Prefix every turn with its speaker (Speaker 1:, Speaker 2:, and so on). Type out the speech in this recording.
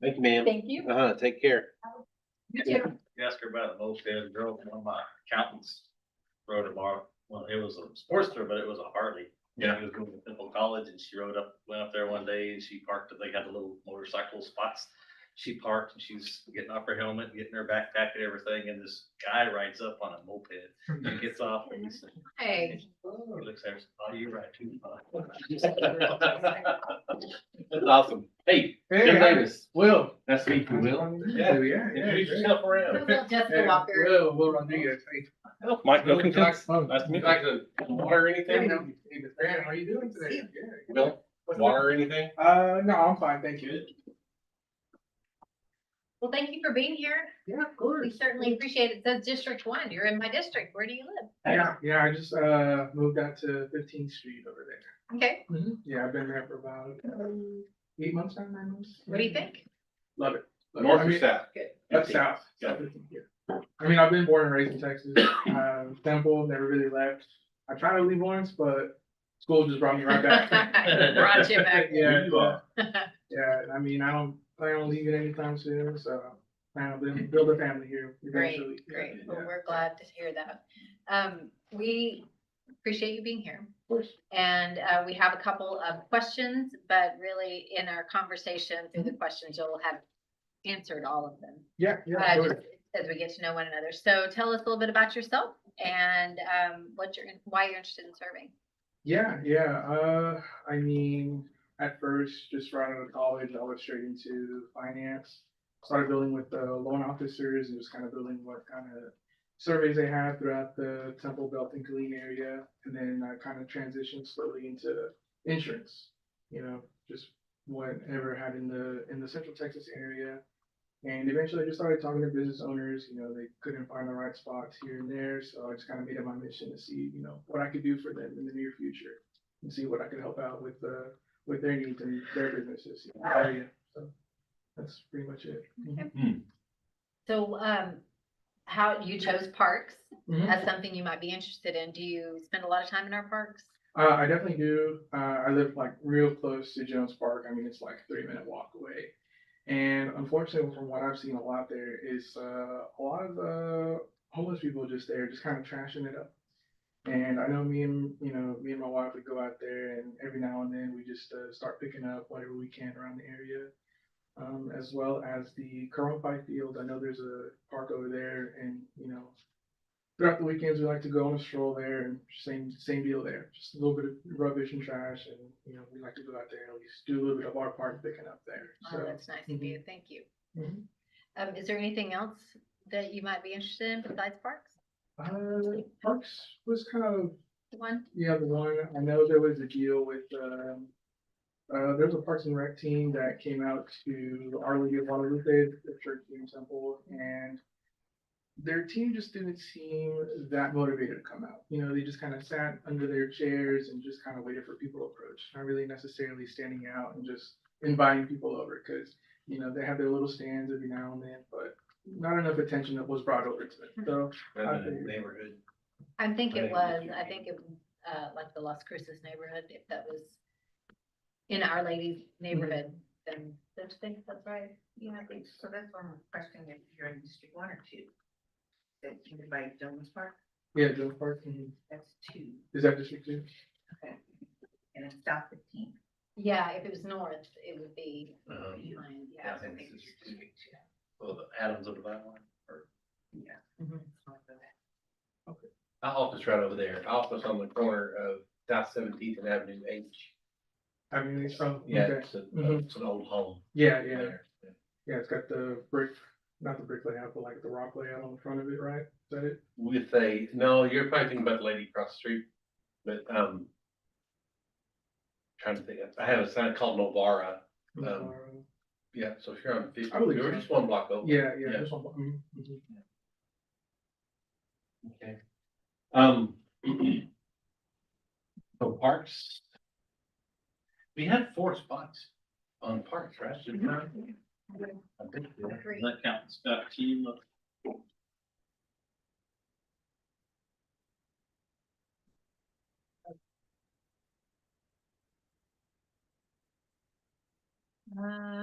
Speaker 1: Thank you, ma'am.
Speaker 2: Thank you.
Speaker 1: Uh-huh, take care.
Speaker 3: ask her about the Lowstand girl, one of my accountants rode her bar, well, it was a sportster, but it was a Harley. Yeah. She was going to Temple College and she rode up, went up there one day and she parked, they had the little motorcycle spots. She parked and she's getting off her helmet, getting her backpack and everything, and this guy rides up on a moped and gets off and he's like,
Speaker 4: Hey,
Speaker 3: oh, looks like, oh, you ride too far.
Speaker 1: That's awesome. Hey, Jim Davis. Will. Nice to meet you, Will.
Speaker 3: Yeah,
Speaker 5: we are.
Speaker 3: Introduce yourself around.
Speaker 4: Jessica Walker.
Speaker 5: Well, well, I knew you.
Speaker 1: Mike
Speaker 5: Nice
Speaker 1: to meet you. Like Water or anything?
Speaker 5: How are you doing today?
Speaker 1: Will, water or anything?
Speaker 5: Uh, no, I'm fine, thank you.
Speaker 4: Well, thank you for being here.
Speaker 5: Yeah, of
Speaker 4: We
Speaker 5: course.
Speaker 4: certainly appreciate it. It says District One. You're in my district. Where do you live?
Speaker 5: Yeah, yeah, I just, uh, moved out to Fifteenth Street over there.
Speaker 4: Okay,
Speaker 1: Mm-hmm.
Speaker 5: Yeah, I've been there for about um, eight months now, nine months.
Speaker 4: what do you think?
Speaker 5: Love it. Love it. I
Speaker 1: North or
Speaker 5: mean,
Speaker 1: south?
Speaker 5: Up south.
Speaker 1: Yeah.
Speaker 5: I mean, I've been born and raised in Texas, um, Temple, never really left. I tried to leave once, but school just brought me right back.
Speaker 4: Brought you back.
Speaker 5: Yeah,
Speaker 3: You are.
Speaker 5: yeah, I mean, I don't plan on leaving anytime soon, so plan on building, build a family here eventually.
Speaker 4: Great, great. Well,
Speaker 5: Yeah.
Speaker 4: we're glad to hear that. Um, we appreciate you being here.
Speaker 5: course.
Speaker 4: And, uh, we have a couple of questions, but really in our conversation through the questions, you'll have answered all of them.
Speaker 5: Yeah, yeah,
Speaker 4: uh,
Speaker 5: sure.
Speaker 4: just as we get to know one another. So tell us a little bit about yourself and um, what you're, in- why you're interested in serving.
Speaker 5: yeah, yeah, uh, I mean, at first, just right out of college, I was straight into finance. Started building with the loan officers and just kind of building what kind of surveys they have throughout the Temple Belt and Killeen area. And then I kind of transitioned slowly into insurance, you know, just whatever had in the, in the central Texas area. And eventually I just started talking to business owners, you know, they couldn't find the right spots here and there, so I just kind of made it my mission to see, you know, what I could do for them in the near future. And see what I could help out with, uh, with their needs and their businesses, in the area, so that's pretty much it.
Speaker 4: So um, how you chose parks
Speaker 5: Mhm.
Speaker 4: as something you might be interested in. Do you spend a lot of time in our parks?
Speaker 5: Uh, I definitely do. Uh, I live like real close to Jones Park. I mean, it's like a three minute walk away. And unfortunately, from what I've seen a lot there is uh, a lot of uh, homeless people just there, just kind of trashing it up. And I know me and you know me and my wife would go out there, and every now and then we just uh, start picking up whatever we can around the area, um, as well as the Carmel Pike Field. I know there's a park over there, and you know throughout the weekends we like to go on a stroll there and same same deal there just a little bit of rubbish and trash and you know we like to go out there and we just do a little bit of our part picking up there
Speaker 4: Oh,
Speaker 5: so
Speaker 4: that's nice of
Speaker 3: Mm-hmm.
Speaker 4: you. Thank you.
Speaker 5: Mhm.
Speaker 4: Um, is there anything else that you might be interested in besides parks?
Speaker 5: uh, parks was kind of
Speaker 4: One?
Speaker 5: yeah the one i know there was a deal with um uh, there was a Parks and Rec team that came out to our League of Guadalupe, the church team temple, and their team just didn't seem that motivated to come out. You know, they just kind of sat under their chairs and just kind of waited for people to approach, not really necessarily standing out and just inviting people over because, you know, they have their little stands every now and then, but not enough attention that was brought over to them. So,
Speaker 3: Rather than Neighborhood.
Speaker 4: I think
Speaker 3: I
Speaker 4: it
Speaker 3: think that's
Speaker 4: was,
Speaker 3: your
Speaker 4: I
Speaker 3: name.
Speaker 4: think it, was, uh, like the Las Cruces neighborhood, if that was in Our Lady's
Speaker 3: Mm-hmm.
Speaker 4: neighborhood, then don't you think that's right?
Speaker 6: Yeah, I think, so that's one question, if you're in District One or Two. That you could buy Jones Park,
Speaker 5: yeah, Jones Park. mhm.
Speaker 6: that's two,
Speaker 5: Is that District 2?
Speaker 6: okay, and it's South Fifteen.
Speaker 4: Yeah, if it was north, it would be,
Speaker 3: Um,
Speaker 4: behind,
Speaker 3: yeah,
Speaker 4: yeah.
Speaker 3: I think it's
Speaker 6: District
Speaker 3: just-
Speaker 6: Two.
Speaker 3: Well, the Adams of the Bible.
Speaker 4: Mhm.
Speaker 1: My office right over there. Office on the corner of South Seventeenth and Avenue H.
Speaker 5: I mean, it's from,
Speaker 1: Yeah,
Speaker 5: okay.
Speaker 1: it's, a- uh,
Speaker 5: Mhm.
Speaker 1: it's an old home.
Speaker 5: yeah, yeah.
Speaker 1: there.
Speaker 5: Yeah, it's got the brick, not the brick layout, but like the rock layout on the front of it, right? Is that it?
Speaker 1: With a, no, you're probably thinking about the lady across the street, but, um, trying to think, I have a sign called Novara. Um, Yeah, so if you're on fifty,
Speaker 5: I believe
Speaker 1: you're
Speaker 5: so.
Speaker 1: just one block over.
Speaker 5: Um, yeah, yeah.
Speaker 1: yeah.
Speaker 5: this one, mhm, mhm.
Speaker 1: Okay. Um. So parks. We had four spots on parks, right? Didn't we? I think we had-
Speaker 4: Agree.
Speaker 3: That counts, uh, team of
Speaker 4: Uh,